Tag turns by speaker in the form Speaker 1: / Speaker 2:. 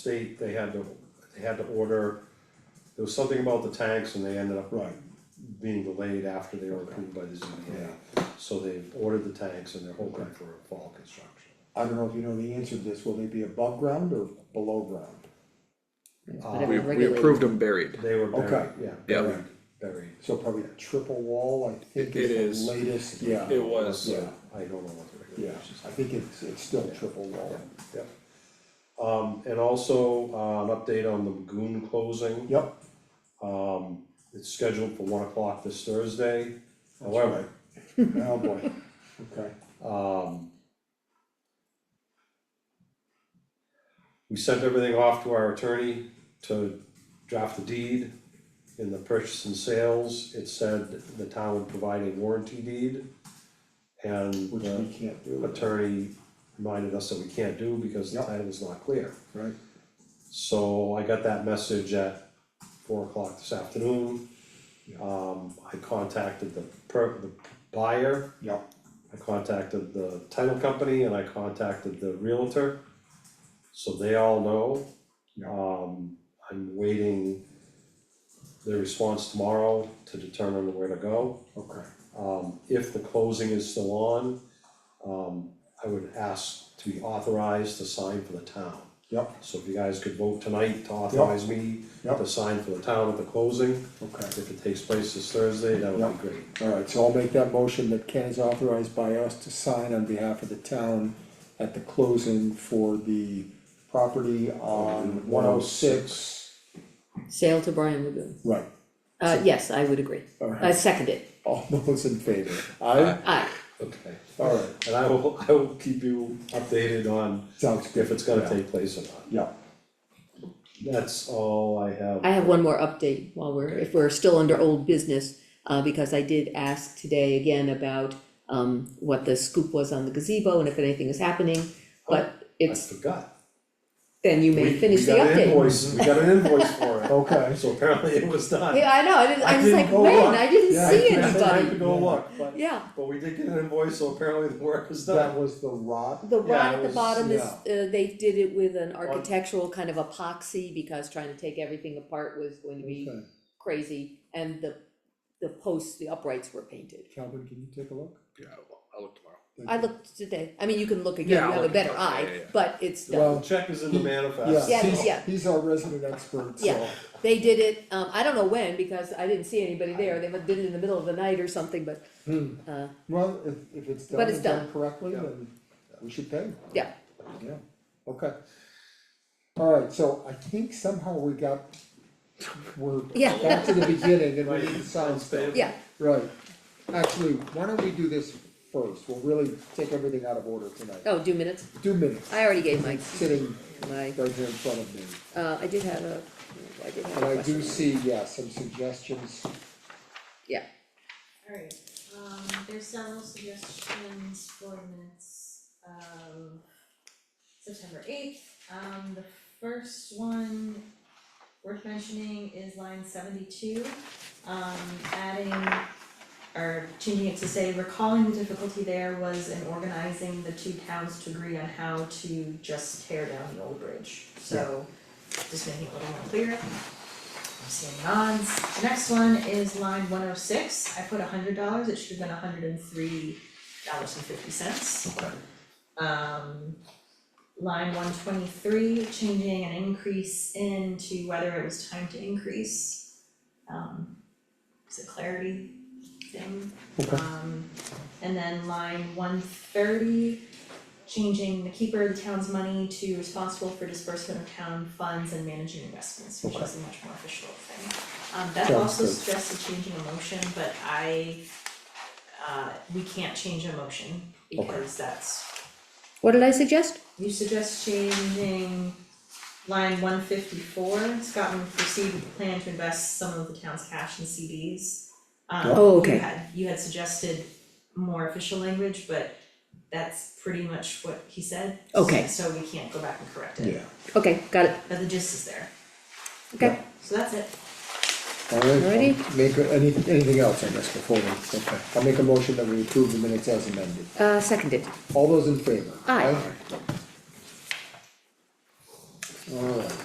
Speaker 1: state, they had to, they had to order, there was something about the tanks and they ended up
Speaker 2: Right,
Speaker 1: being delayed after they were approved by the ZBA. So they've ordered the tanks and they're hoping for a fall construction.
Speaker 2: I don't know if you know the answer to this, will they be above ground or below ground?
Speaker 3: We,
Speaker 4: Whatever
Speaker 3: we
Speaker 4: regulated,
Speaker 3: approved them buried.
Speaker 1: They were buried,
Speaker 2: Um, Okay.
Speaker 1: yeah,
Speaker 3: Yeah.
Speaker 1: buried, buried.
Speaker 2: So probably a triple wall, I think
Speaker 3: It- it
Speaker 2: is
Speaker 3: is.
Speaker 2: the latest, yeah.
Speaker 3: It was.
Speaker 2: Yeah,
Speaker 1: I don't know what the
Speaker 2: yeah,
Speaker 1: regulations
Speaker 2: I think it's, it's still triple wall,
Speaker 1: Yep. Um, and also, uh, an update on the Lagoon closing,
Speaker 2: yep,
Speaker 1: um, it's scheduled for one o'clock this Thursday.
Speaker 2: that's
Speaker 1: However,
Speaker 2: right. Oh boy, okay,
Speaker 1: um. We sent everything off to our attorney to draft the deed. In the purchase and sales, it said the town would provide a warranty deed. And uh,
Speaker 2: which
Speaker 1: the-
Speaker 2: we can't do,
Speaker 1: attorney reminded us that we can't do because the
Speaker 2: Yep.
Speaker 1: title is not clear.
Speaker 2: right?
Speaker 1: So I got that message at four o'clock this afternoon.
Speaker 2: Yeah.
Speaker 1: Um, I contacted the per, the buyer,
Speaker 2: Yep,
Speaker 1: I contacted the title company and I contacted the realtor. So they all know.
Speaker 2: Yeah.
Speaker 1: Um, I'm waiting their response tomorrow to determine where to go.
Speaker 2: okay,
Speaker 1: Um, if the closing is still on, um, I would ask to be authorized to sign for the town.
Speaker 2: yep,
Speaker 1: So if you guys could vote tonight to authorize me
Speaker 2: Yep.
Speaker 1: to sign for the town at the closing,
Speaker 2: okay.
Speaker 1: if it takes place this Thursday, that would be great.
Speaker 2: Alright, so I'll make that motion that Ken is authorized by us to sign on behalf of the town at the closing for the property on one oh six.
Speaker 4: sale to Brian Lagoon.
Speaker 2: Right,
Speaker 4: Uh, yes, I would agree. I
Speaker 2: alright,
Speaker 4: second it.
Speaker 2: all those in favor, aye,
Speaker 4: Aye.
Speaker 1: Uh, Okay.
Speaker 2: alright,
Speaker 1: And I will, I will keep you updated on
Speaker 2: sounds good.
Speaker 1: if it's gonna take place or not.
Speaker 2: Yeah,
Speaker 1: That's all I have.
Speaker 4: I have one more update while we're, if we're still under old business, uh, because I did ask today again about, um, what the scoop was on the gazebo and if anything is happening, but
Speaker 1: Oh, I
Speaker 4: it's,
Speaker 1: forgot.
Speaker 4: then you
Speaker 1: We-
Speaker 4: may finish the
Speaker 1: We got an
Speaker 4: update.
Speaker 1: invoice, we got an invoice for it,
Speaker 2: okay,
Speaker 1: so apparently it was done.
Speaker 4: Yeah, I know, I didn't,
Speaker 1: I
Speaker 4: I was
Speaker 1: didn't
Speaker 4: like,
Speaker 1: go
Speaker 4: when,
Speaker 1: look.
Speaker 4: I didn't
Speaker 2: Yeah,
Speaker 4: see
Speaker 1: I had to
Speaker 4: anybody,
Speaker 1: go look, but.
Speaker 4: yeah,
Speaker 1: But we did get an invoice, so apparently the work is
Speaker 2: that
Speaker 1: done.
Speaker 2: was the rod,
Speaker 4: the
Speaker 1: Yeah,
Speaker 4: rod
Speaker 1: it
Speaker 4: at the
Speaker 1: was-
Speaker 4: bottom is, uh,
Speaker 2: yeah.
Speaker 4: they did it with an architectural kind of epoxy, because trying to take everything apart was going to be
Speaker 2: okay,
Speaker 4: crazy, and the, the posts, the uprights were painted.
Speaker 2: Calvin, can you take a look?
Speaker 3: Yeah, I'll- I'll look tomorrow.
Speaker 2: Thank
Speaker 4: I
Speaker 2: you.
Speaker 4: looked today, I mean, you can look
Speaker 3: Yeah,
Speaker 4: again, you
Speaker 3: I'll
Speaker 4: have a
Speaker 3: look
Speaker 4: better
Speaker 3: again. Yeah, yeah,
Speaker 4: eye,
Speaker 3: yeah.
Speaker 4: but it's
Speaker 2: Well,
Speaker 4: done.
Speaker 1: The check is in the manifest.
Speaker 4: Yeah,
Speaker 1: so-
Speaker 4: yeah.
Speaker 2: He's our resident expert, so.
Speaker 4: Yeah. They did it, um, I don't know when, because I didn't see anybody there, they did it in the middle of the night or something, but,
Speaker 2: Hmm.
Speaker 4: uh,
Speaker 2: Well, if, if it's done
Speaker 4: But it's
Speaker 2: and done
Speaker 4: done.
Speaker 2: correctly,
Speaker 1: Yeah.
Speaker 2: then we should pay.
Speaker 4: Yeah.
Speaker 2: Yeah, okay. Alright, so I think somehow we got, we're
Speaker 4: Yeah.
Speaker 2: back to the beginning and we need to sign
Speaker 1: Sounds
Speaker 2: stuff.
Speaker 1: bad.
Speaker 4: yeah,
Speaker 2: Right, actually, why don't we do this first, we'll really take everything out of order tonight.
Speaker 4: oh, do minutes,
Speaker 2: Two minutes,
Speaker 4: I already gave my,
Speaker 2: sitting
Speaker 4: my,
Speaker 2: right here in front of me,
Speaker 4: uh, I did have a, I did have
Speaker 2: and
Speaker 4: a
Speaker 2: I do
Speaker 4: question.
Speaker 2: see, yeah, some suggestions,
Speaker 5: Alright, um, there's several suggestions for minutes of September eighth. Um, the first one worth mentioning is line seventy-two, um, adding or changing it to say recalling the difficulty there was in organizing the two towns to agree on how to just tear down the old bridge. So just making it a little more clear. I'm seeing nods. The next one is line one oh six, I put hundred dollars, it should have been hundred and three dollars and fifty cents. Um, line one twenty-three, changing an increase into whether it was time to increase. Um, it's a clarity thing.
Speaker 2: Okay.
Speaker 5: Um, and then line one thirty, changing the keeper of the town's money to responsible for disbursement of town funds and managing investments, which is a much more official thing. Um, that
Speaker 2: Sounds
Speaker 5: also
Speaker 2: good.
Speaker 5: suggested changing a motion, but I, uh, we can't change a motion because that's
Speaker 4: What did I suggest?
Speaker 5: you suggest changing line one fifty-four, Scotland proceed with the plan to invest some of the town's cash in CDs. Um,
Speaker 2: Yeah.
Speaker 4: Oh, okay.
Speaker 5: You had, you had suggested more official language, but that's pretty much what he said.
Speaker 4: Okay.
Speaker 5: So we can't go back and correct it,
Speaker 2: yeah,
Speaker 4: Okay, got it,
Speaker 5: but the gist is there,
Speaker 4: okay,
Speaker 5: so that's it.
Speaker 2: alright,
Speaker 4: Alrighty.
Speaker 2: make, a- any, anything else on this before we, okay, I'll make a motion that we approve the minutes as amended.
Speaker 4: uh, seconded,
Speaker 2: All those in favor?
Speaker 4: Aye.
Speaker 2: Alright.